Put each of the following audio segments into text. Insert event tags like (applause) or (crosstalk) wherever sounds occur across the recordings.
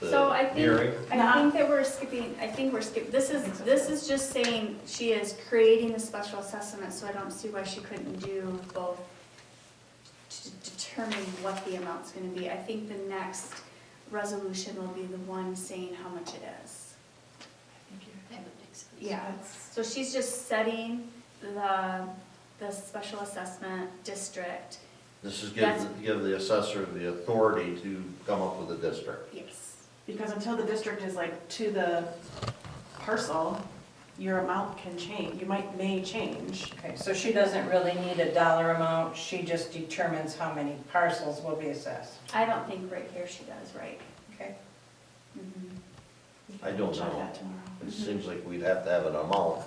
I think, Hearing. I think that we're skipping, I think we're skipping, this is, this is just saying she is creating a special assessment, so I don't see why she couldn't do both to determine what the amount's gonna be. I think the next resolution will be the one saying how much it is. That would make sense. Yeah, so she's just setting the, the special assessment district, This is give, give the assessor the authority to come up with a district. yes. Because until the district is like to the parcel, your amount can change, you might, may change. Okay, so she doesn't really need a dollar amount, she just determines how many parcels will be assessed, I don't think right here she does, right? okay? Mhm. I don't Check know. that tomorrow. It seems like we'd have to have an amount.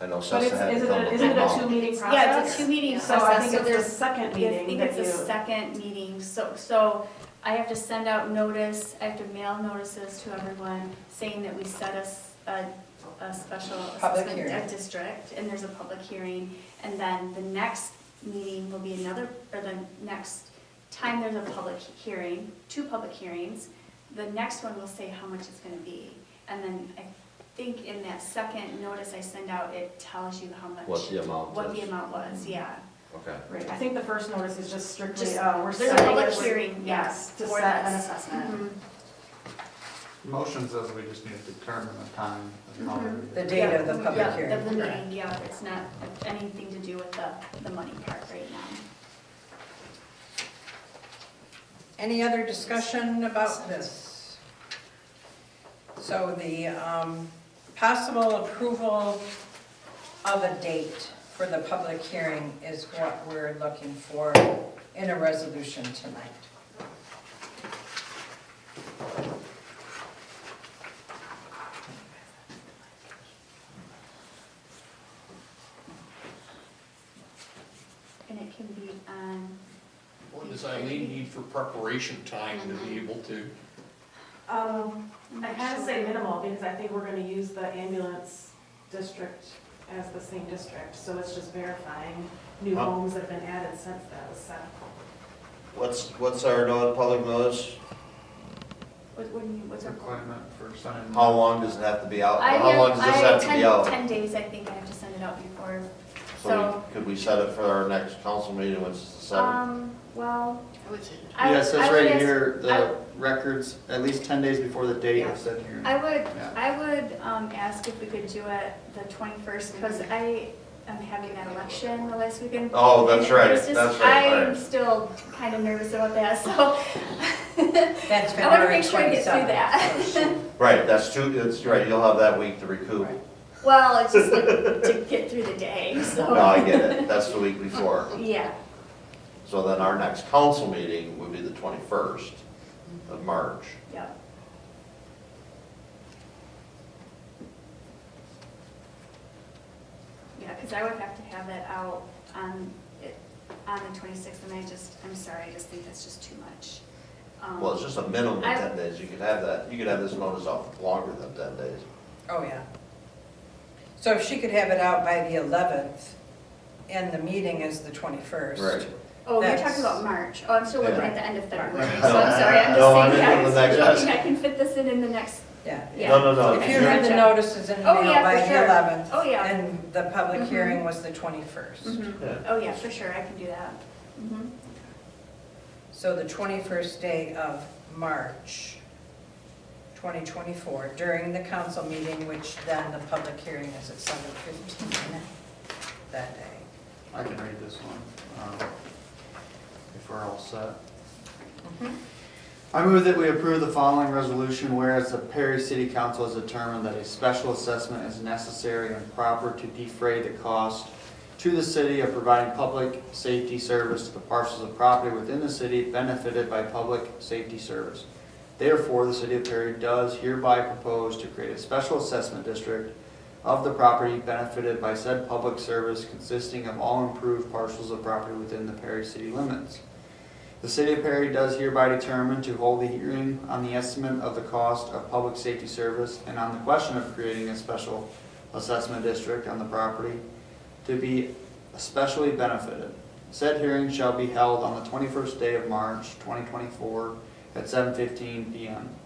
I know But Sessa it's, had to isn't come it, up with isn't an it a amount. two-meeting process? Yeah, it's a two-meeting So I think process, so it's the there's second I meeting think that it's a you, second meeting, so, so I have to send out notice, I have to mail notices to everyone saying that we set us a, a special Public assessment hearing. di- district, and there's a public hearing, and then the next meeting will be another, or the next time there's a public hearing, two public hearings, the next one will say how much it's gonna be, and then I think in that second notice I send out, it tells you how much. What the amount What the is. amount was, yeah. Okay. right, I think the first notice is just strictly, Just- uh, we're There's a setting. public this- hearing, yes, To for set an this. assessment. Mhm. Motion says we just need to determine the time and how Mhm. The we- date of the public Yeah, hearing. the meeting, yeah, it's not anything to do with the, the money part right now. Any other discussion about this? So the um, possible approval of a date for the public hearing is what we're looking for in a resolution tonight. And it can be um, on, What does Eileen need for preparation time to be able to? Um, I'm I not kind of say sure. minimal, because I think we're gonna use the ambulance district as the same district, so it's just verifying new Huh. homes that have been added since that was set. What's, what's our no- public notice? What, what do you, what's our? Requirement for signing. How long does it have to be out? I How long does this have to I- be 10 out? Ten days, I think I have to send it out before, So we- could we set it for our next council meeting, which is the seventh? um, well, I would say. I. Yeah, it says I would right ask- here, I- the records, at least ten days before the date of said hearing. I would, Yeah. I would um, ask if we could do it the 21st, because I am having that election the last weekend. Oh, that's right, It's just- that's right, I'm right. still kind of nervous about that, so. (laughs) That's I want to February make 27th. sure I get through (laughs) that. Right, that's two, that's right, you'll have that week to recoup. Right. Well, it's just like to get through the day, so. (laughs) No, I get it, that's the week before. Yeah, So then our next council meeting would be the twenty-first of March. yeah. Yeah, because I would have to have it out on, it- on the 26th, and I just, I'm sorry, I just think that's just too much. Um, Well, it's just a minimum of I- ten days, you could have that, you could have this notice off longer than ten days. Oh, yeah. So if she could have it out by the 11th, and the meeting is the 21st. Right. Oh, you're That's- talking about March. Oh, I'm still looking Yeah. at the end of February, Right. so I'm (laughs) sorry, I'm No, I'm just saying, thinking of the I next- just think I can fit this in in the next, Yeah. yeah. No, no, no. If you had the notices in the Oh, yeah, mail by for the sure. 11th. Oh, yeah. And the public Mhm. hearing was the 21st. Mhm. Oh, yeah, for sure, I can do that. Mhm. So the 21st day of March 2024, during the council meeting, which then the public hearing is at 7:15 that day. I can read this one, um, if we're all set. I move that we approve the following resolution, whereas the Perry City Council has determined that a special assessment is necessary and proper to defray the cost to the city of providing public safety service to the parcels of property within the city benefited by public safety service. Therefore, the city of Perry does hereby propose to create a special assessment district of the property benefited by said public service consisting of all improved parcels of property within the Perry city limits. The city of Perry does hereby determine to hold a hearing on the estimate of the cost of public safety service and on the question of creating a special assessment district on the property to be especially benefited. Said hearing shall be held on the twenty-first day of March, twenty twenty-four, at seven fifteen PM.